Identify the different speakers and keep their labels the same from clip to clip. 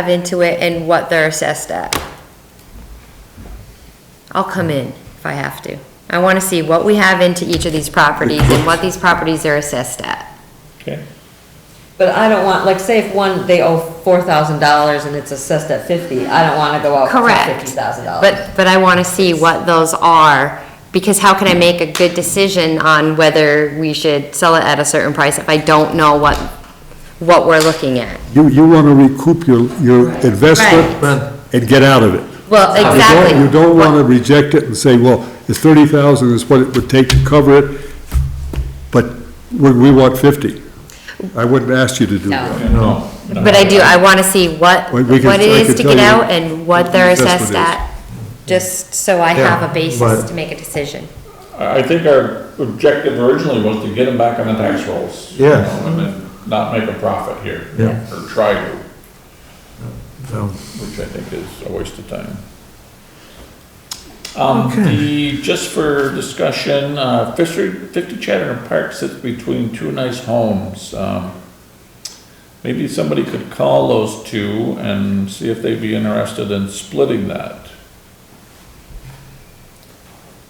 Speaker 1: have into it and what they're assessed at. I'll come in if I have to. I want to see what we have into each of these properties and what these properties are assessed at.
Speaker 2: Okay.
Speaker 3: But I don't want, like, say if one, they owe four thousand dollars and it's assessed at fifty, I don't wanna go out for
Speaker 1: Correct.
Speaker 3: fifty thousand dollars.
Speaker 1: But, but I want to see what those are, because how can I make a good decision on whether we should sell it at a certain price if I don't know what, what we're looking at?
Speaker 4: You, you want to recoup your, your investment and get out of it.
Speaker 1: Well,
Speaker 4: You don't- You
Speaker 1: exactly.
Speaker 4: don't want to reject it and say, well, it's thirty thousand is what it would take to cover it, but we, we want fifty. I wouldn't ask you to do that.
Speaker 2: No.
Speaker 1: But I do, I want to see what,
Speaker 4: We- we can-
Speaker 1: what it
Speaker 4: I
Speaker 1: is
Speaker 4: can
Speaker 1: to
Speaker 4: tell
Speaker 1: get
Speaker 4: you
Speaker 1: out and what they're
Speaker 4: what the assessment
Speaker 1: assessed at, just so I have a basis to make a decision.
Speaker 2: I I think our objective originally was to get them back on the tax rolls. you
Speaker 5: Yes.
Speaker 2: know, And then not make a profit here.
Speaker 5: Yeah.
Speaker 2: Or try to,
Speaker 5: So,
Speaker 2: which I think is a waste of time. Um, the, just for discussion, uh, Fifty, Fifty Chatham Park sits between two nice homes. Um, Maybe somebody could call those two and see if they'd be interested in splitting that.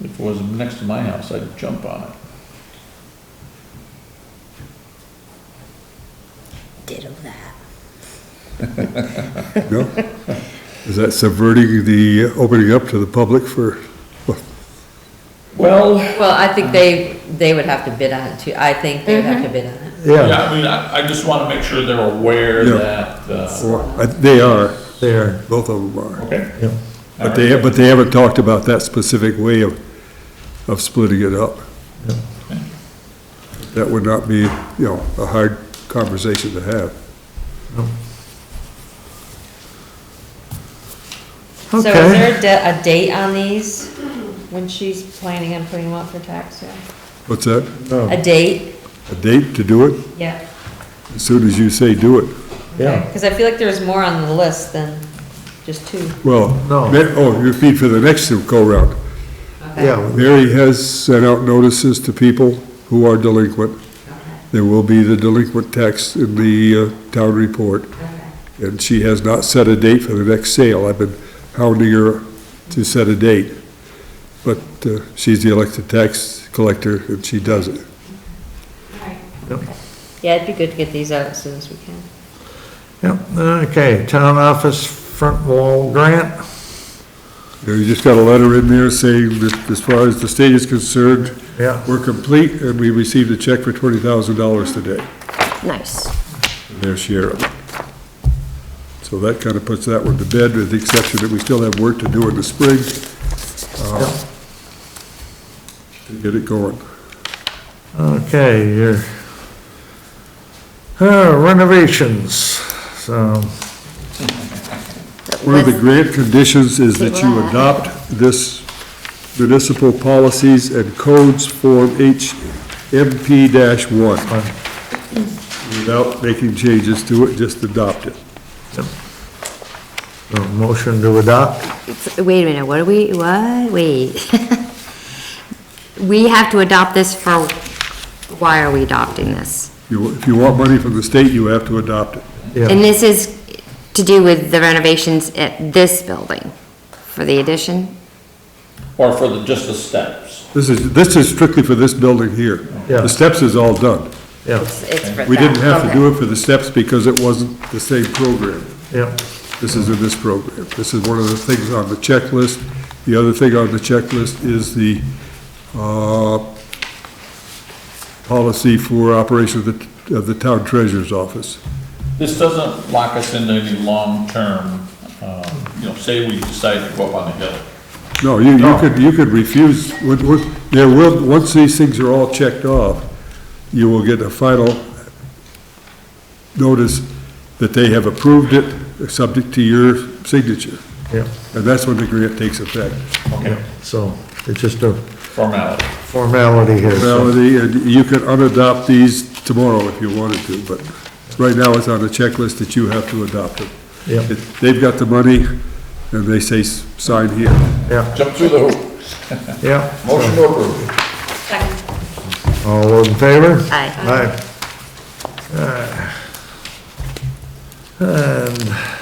Speaker 2: If it was next to my house, I'd jump on it.
Speaker 1: Ditto that.
Speaker 4: No? Is that subverting the, opening up to the public for,
Speaker 2: Well,
Speaker 3: Well, I think they,
Speaker 5: Mm-hmm.
Speaker 3: they would have to bid on it too, I think they would have to bid on it.
Speaker 5: yeah,
Speaker 2: Yeah, I mean, I, I just wanna make sure they're aware
Speaker 4: Yeah.
Speaker 2: that, uh,
Speaker 4: or, uh, they are,
Speaker 5: there,
Speaker 4: both of them are.
Speaker 2: okay,
Speaker 5: yeah.
Speaker 4: But they, but they haven't talked about that specific way of, of splitting it up. That would not be, you know, a hard conversation to have.
Speaker 3: So is
Speaker 5: Okay.
Speaker 3: there a de- a date on these, when she's planning on putting them up for tax sale?
Speaker 4: What's that?
Speaker 5: No,
Speaker 3: A date?
Speaker 4: A date to do it?
Speaker 3: Yeah.
Speaker 4: As soon as you say do it.
Speaker 5: yeah,
Speaker 3: Cause I feel like there's more on the list than just two.
Speaker 4: Well,
Speaker 5: No.
Speaker 4: Ma- oh, you feed for the next go-round.
Speaker 5: yeah,
Speaker 4: Mary has sent out notices to people who are delinquent. There will be the delinquent tax in the uh, town report. And she has not set a date for the next sale. I've been hounding her to set a date. But uh, she's the elected tax collector and she does it.
Speaker 3: Yeah, it'd be good to get these out as soon as we can.
Speaker 5: yeah, okay, town office front wall grant,
Speaker 4: You know, you just got a letter in there saying that as far as the state is concerned,
Speaker 5: yeah,
Speaker 4: we're complete and we received a check for twenty thousand dollars today.
Speaker 1: Nice.
Speaker 4: their share of it. So that kind of puts that one to bed, with the exception that we still have work to do in the spring
Speaker 5: yeah.
Speaker 4: to get it going.
Speaker 5: Okay, your uh, renovations, so,
Speaker 4: One of the grant conditions is that you adopt this municipal policies and codes form HMP one. Without making changes to it, just adopt it.
Speaker 5: a motion to adopt,
Speaker 1: It's- Wait a minute, what do we, what? Wait. We have to adopt this for, why are we adopting this?
Speaker 4: You- If you want money from the state, you have to adopt it.
Speaker 1: And
Speaker 5: yeah,
Speaker 1: this is to do with the renovations at this building for the addition?
Speaker 2: or for the, just the steps.
Speaker 4: This is, this is strictly for this building here.
Speaker 5: Yeah.
Speaker 4: The steps is all done.
Speaker 5: yeah,
Speaker 1: It's for
Speaker 4: We didn't have to
Speaker 1: that,
Speaker 4: do
Speaker 1: okay.
Speaker 4: it for the steps because it wasn't the same program.
Speaker 5: yeah,
Speaker 4: This is in this program. This is one of the things on the checklist. The other thing on the checklist is the, uh, policy for operation of the, of the town treasurer's office.
Speaker 2: This doesn't lock us into any long-term, um, you know, say we decide to go up on the hill.
Speaker 4: No, you, you could, you could refuse, would- would- there will, once these things are all checked off, you will get a final notice that they have approved it, subject to your signature.
Speaker 5: yeah,
Speaker 4: And that's when the grant takes effect.
Speaker 2: Okay,
Speaker 5: so, it's just a
Speaker 2: formality.
Speaker 5: formality here, so,
Speaker 4: Melody, and you could unadopt these tomorrow if you wanted to, but right now it's on the checklist that you have to adopt it.
Speaker 5: Yeah.
Speaker 4: It- They've got the money, and they say, "S- sign here.
Speaker 5: yeah,
Speaker 2: Jump through the hoop.
Speaker 5: yeah.
Speaker 2: Motion to approve.
Speaker 5: All those in favor?
Speaker 1: Aye.
Speaker 5: Aye. Uh, And